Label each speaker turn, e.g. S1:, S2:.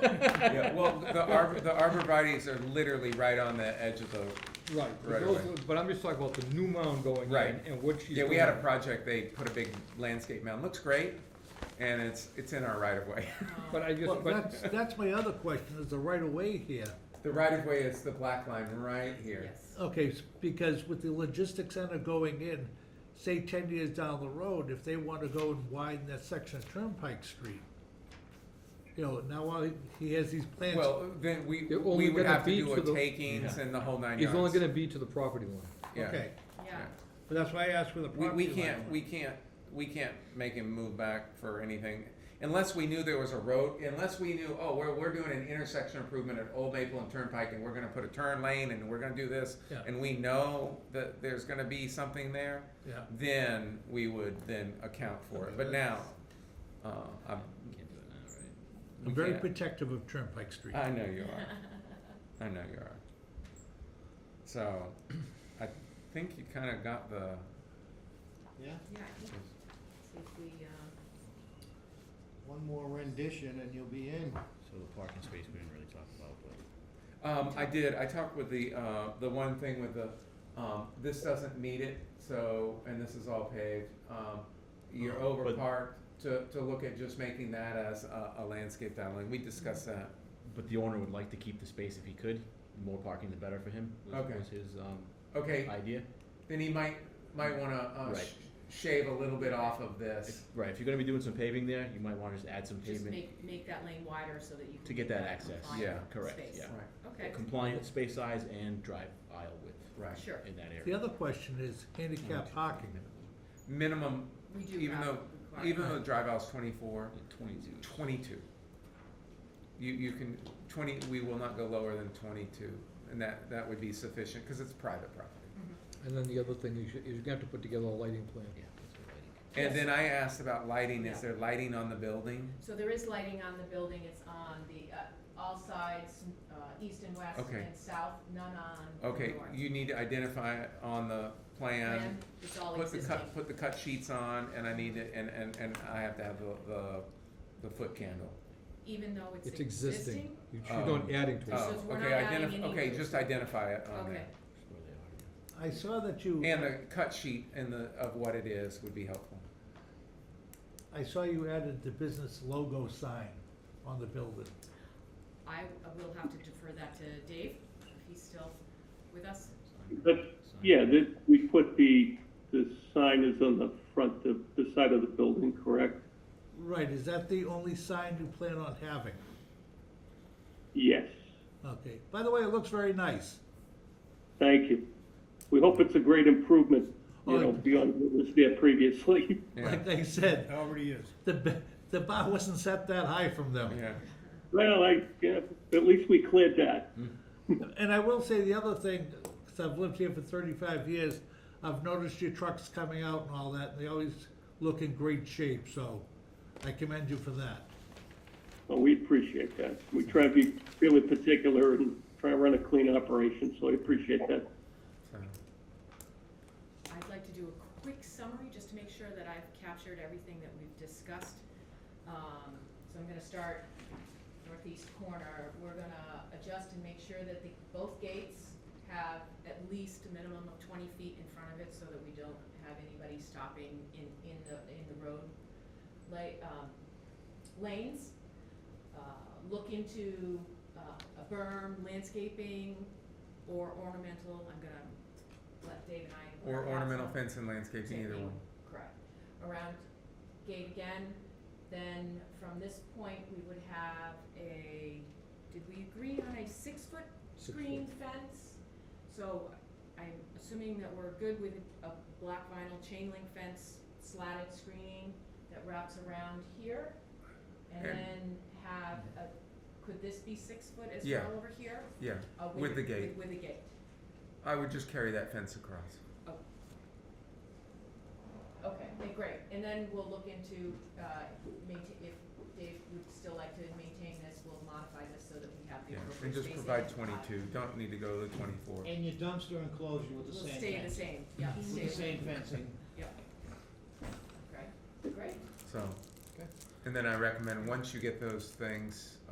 S1: Yeah, well, the arbor, the arborvitae's are literally right on the edge of the,
S2: Right, but
S1: Right
S2: those-
S1: away.
S2: but I'm just talking about the new mound going in
S1: Right.
S2: and what she's
S1: yeah,
S2: doing.
S1: we had a project, they put a big landscape mound, looks great, and it's, it's in our right of way.
S2: But I
S3: Well,
S2: just, but,
S3: that's, that's my other question, is the right of way here.
S1: The right of way is the black line right here.
S3: Okay, s- because with the logistics center going in, say ten years down the road, if they wanna go and widen that section of Turnpike Street, you know, now while he- he has these plans.
S1: Well, then we,
S2: They're only
S1: we would
S2: gonna
S1: have to
S2: be
S1: do
S2: to the-
S1: a takings and the whole nine
S2: it's
S1: yards.
S2: only gonna be to the property line.
S1: Yeah.
S3: Okay,
S4: Oh,
S1: Yeah.
S3: but that's why I asked for the
S1: We, we
S3: property line.
S1: can't, we can't, we can't make him move back for anything, unless we knew there was a road, unless we knew, oh, we're, we're doing an intersection improvement at Old Maple and Turnpike, and we're gonna put a turn lane, and we're gonna do this,
S3: Yeah.
S1: and we know that there's gonna be something there,
S3: Yeah,
S1: then we would then account for it, but now, uh, I'm.
S4: Can't do it now, right?
S1: we
S3: I'm very
S1: can't.
S3: protective of Turnpike Street.
S1: I know you are. I know you are. So, I think you kinda got the,
S5: Yeah,
S4: Yeah, I think, see if we, uh,
S5: one more rendition and you'll be in.
S6: So the parking space we didn't really talk about, but
S1: Um, I did, I talked with the, uh, the one thing with the, um, this doesn't meet it, so, and this is all paved, um, you're
S6: Oh,
S1: over
S6: but-
S1: parked to, to look at just making that as a, a landscape downline, we discussed
S6: Mm-hmm.
S1: that.
S6: but the owner would like to keep the space if he could. The more parking, the better for him. Was,
S1: Okay.
S6: was his um,
S1: Okay,
S6: idea.
S1: then he might, might wanna, uh,
S6: Right.
S1: sh- shave a little bit off of this.
S6: If- right. If you're going to be doing some paving there, you might want to just add some
S4: just
S6: pavement
S4: make, make that lane wider so that you can.
S6: to get
S4: keep
S6: that access.
S4: compliant
S1: Yeah.
S6: Correct.
S4: space.
S6: Yeah.
S1: Right,
S4: Okay,
S6: Compliant space size and drive aisle width
S1: right.
S4: sure,
S6: in that area.
S3: The other question is handicap parking.
S1: Minimum,
S4: we do
S1: even
S4: have
S1: though-
S4: requirements.
S1: even though the drive aisle's twenty-four,
S6: Like 22.
S1: twenty-two. You, you can, twenty, we will not go lower than twenty-two, and that, that would be sufficient, cause it's private property.
S2: And then the other thing, you should, you're gonna have to put together a lighting plan.
S6: Yeah. that's what I think.
S1: And
S4: Yes.
S1: then I asked about lighting, is
S4: Yeah.
S1: there lighting on the building?
S4: So there is lighting on the building, it's on the, uh, all sides, uh, east and west
S1: Okay.
S4: and south, none on the north.
S1: Okay, you need to identify it on the plan,
S4: Plan, it's all
S1: put the
S4: existing.
S1: cut, put the cut sheets on, and I need to, and, and, and I have to have the, the, the foot candle.
S4: Even though it's
S2: It's
S4: existing,
S2: existing, you are not
S1: Um,
S2: adding to it.
S1: Oh,
S4: says we're
S1: okay,
S4: not adding
S1: identify,
S4: any
S1: okay,
S4: new-
S1: just identify it on
S4: okay,
S1: there.
S6: That's where they are.
S3: I saw that you,
S1: And the cut sheet and the, of what it is would be helpful.
S3: I saw you added the business logo sign on the building.
S4: I uh, will have to defer that to Dave, if he's still with us.
S6: Sign-
S7: But,
S6: sign-
S7: Yeah, that, we put the, the sign is on the front, the, the side of the building, correct?
S3: Right, is that the only sign you plan on having?
S7: Yes,
S3: Okay, by the way, it looks very nice.
S7: thank you. We hope it's a great improvement, you know,
S3: Oh.
S7: beyond what was there previously.
S1: Yeah,
S3: Like they said,
S5: already is.
S3: the, b- the bar wasn't set that high from them.
S1: yeah,
S7: Well, I, yeah, at least we cleared that.
S3: And I will say the other thing, because I've lived here for thirty-five years, I've noticed your trucks coming out and all that, and they always look in great shape, so I commend you for that.
S7: Well, we appreciate that. We try to be really particular and try to run a clean operation, so I appreciate that.
S1: so,
S4: I'd like to do a quick summary, just to make sure that I've captured everything that we've discussed. Um, so I'm gonna start northeast corner, we're gonna adjust and make sure that the, both gates have at least a minimum of twenty feet in front of it, so that we don't have anybody stopping in, in the, in the road la- um, lanes. Uh, look into, uh, a berm, landscaping, or ornamental, I'm gonna let Dave and I.
S1: or
S4: work out
S1: ornamental
S4: some-
S1: fence and landscaping, either
S4: Taking-
S1: one.
S4: Correct. Around gate again, then from this point, we would have a, did we agree on a six-foot
S2: Six
S4: screen fence? So I'm assuming that we're good with a black vinyl chain link fence slatted screening that wraps around here? And
S1: And-
S4: then have a, could this be six foot as
S1: Yeah.
S4: well over here?
S1: Yeah,
S4: Uh,
S1: With the gate.
S4: With, with a gate,
S1: I would just carry that fence across.
S4: okay, eh, great, and then we'll look into, uh, maintain, if Dave would still like to maintain this, we'll modify this so that we have the
S1: Yeah,
S4: appropriate
S1: and
S4: spacing.
S1: just provide
S4: Uh,
S1: twenty-two, don't need to go to twenty-four.
S5: And your dumpster enclosure with the
S4: We'll
S5: same fencing.
S4: stay the same, yeah, stay
S5: With the same fencing.
S4: Okay, great.
S1: So, and then I recommend, once you get those things,